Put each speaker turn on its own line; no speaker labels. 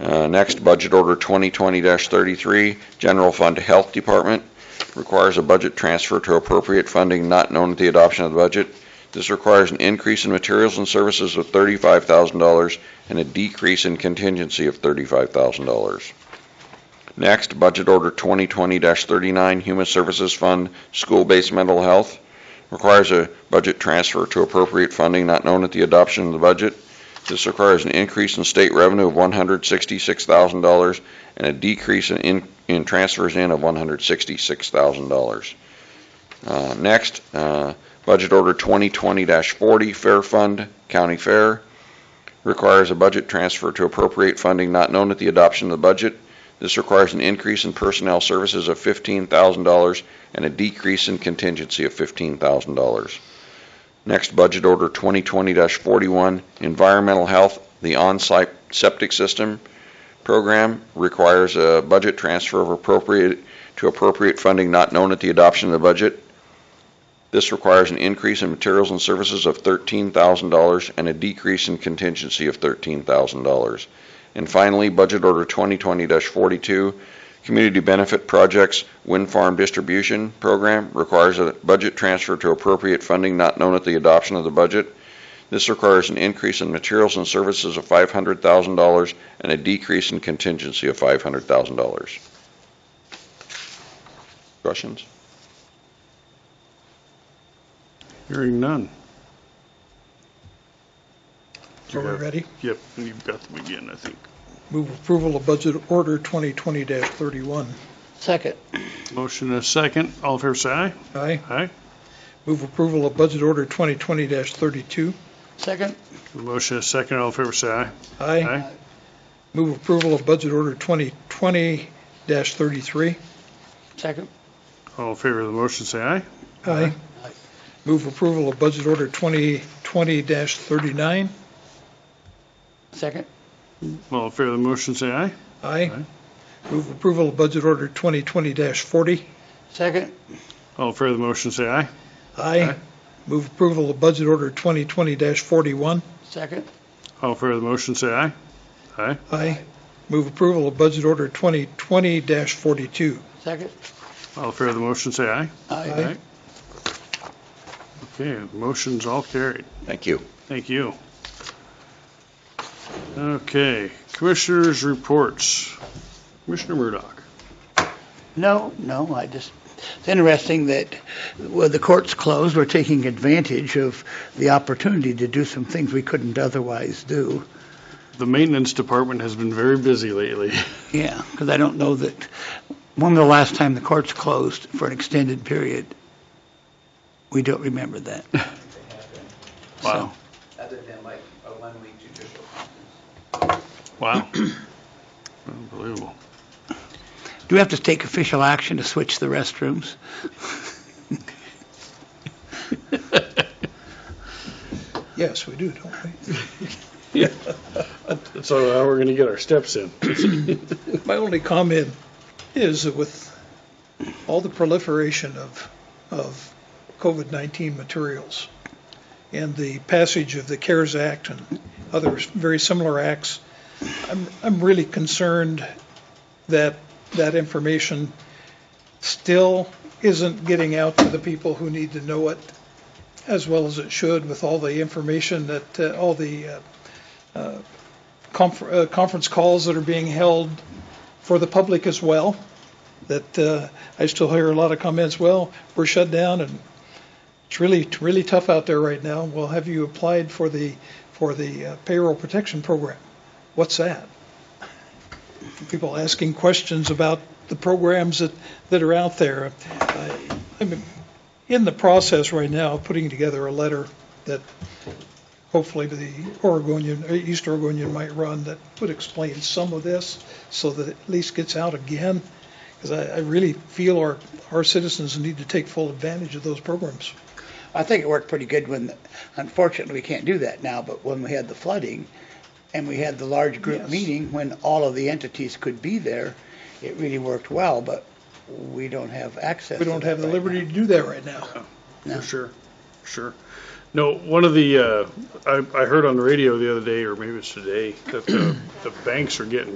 Uh, Next, Budget Order 2020-33, General Fund Health Department, requires a budget transfer to appropriate funding not known at the adoption of the budget. This requires an increase in materials and services of $35,000 and a decrease in contingency of $35,000. Next, Budget Order 2020-39, Human Services Fund, School-Based Mental Health, requires a budget transfer to appropriate funding not known at the adoption of the budget. This requires an increase in state revenue of $166,000 and a decrease in- in, in transfers in of $166,000. Uh, Next, uh, Budget Order 2020-40, Fair Fund, County Fair, requires a budget transfer to appropriate funding not known at the adoption of the budget. This requires an increase in personnel services of $15,000 and a decrease in contingency of $15,000. Next, Budget Order 2020-41, Environmental Health, the on-site septic system program requires a budget transfer of appropriate, to appropriate funding not known at the adoption of the budget. This requires an increase in materials and services of $13,000 and a decrease in contingency of $13,000. And finally, Budget Order 2020-42, Community Benefit Projects Wind Farm Distribution Program requires a budget transfer to appropriate funding not known at the adoption of the budget. This requires an increase in materials and services of $500,000 and a decrease in contingency of $500,000. Questions?
Hearing none.
So we're ready?
Yep, you've got the begin, I think.
Move approval of budget order 2020-31.
Second.
Motion and a second. All in favor, say aye.
Aye.
Aye.
Move approval of budget order 2020-32.
Second.
Motion and a second. All in favor, say aye.
Aye. Move approval of budget order 2020-33.
Second.
All in favor of the motion, say aye.
Aye.
Aye.
Move approval of budget order 2020-39.
Second.
All in favor of the motion, say aye.
Aye.
Aye.
Move approval of budget order 2020-40.
Second.
All in favor of the motion, say aye.
Aye. Move approval of budget order 2020-41.
Second.
All in favor of the motion, say aye. Aye.
Aye. Move approval of budget order 2020-42.
Second.
All in favor of the motion, say aye.
Aye.
Okay, motion's all carried.
Thank you.
Thank you. Okay, commissioners' reports. Commissioner Murdoch.
No, no, I just, it's interesting that with the courts closed, we're taking advantage of the opportunity to do some things we couldn't otherwise do.
The maintenance department has been very busy lately.
Yeah, because I don't know that, when the last time the courts closed for an extended period, we don't remember that.
Wow.
So,
other than like a one-week judicial conference.
Wow. Unbelievable.
Do we have to take official action to switch the restrooms?
Yes, we do, don't we?
So how we're going to get our steps in?
My only comment is that with all the proliferation of, of COVID-19 materials and the passage of the CARES Act and other very similar acts, I'm, I'm really concerned that that information still isn't getting out to the people who need to know it as well as it should with all the information that, uh, all the uh, uh, confer- uh, conference calls that are being held for the public as well. That uh, I still hear a lot of comments. Well, we're shut down, and it's really really tough out there right now. Well, have you applied for the for the uh, payroll protection program? What's that? People asking questions about the programs that that are out there. I, I'm in the process right now of putting together a letter that hopefully the Oregonian, or East Oregonian might run that would explain some of this so that it at least gets out again. Because I, I really feel our, our citizens need to take full advantage of those programs.
I think it worked pretty good when, unfortunately, we can't do that now, but when we had the flooding and we had the large group
Yes.
meeting, when all of the entities could be there, it really worked well, but we don't have access.
We
to
don't
that
have the
right
liberty
now.
to do that right now.
No.
For sure, sure. No, one of the, uh, I, I heard on the radio the other day, or maybe it's today, that the, the banks are getting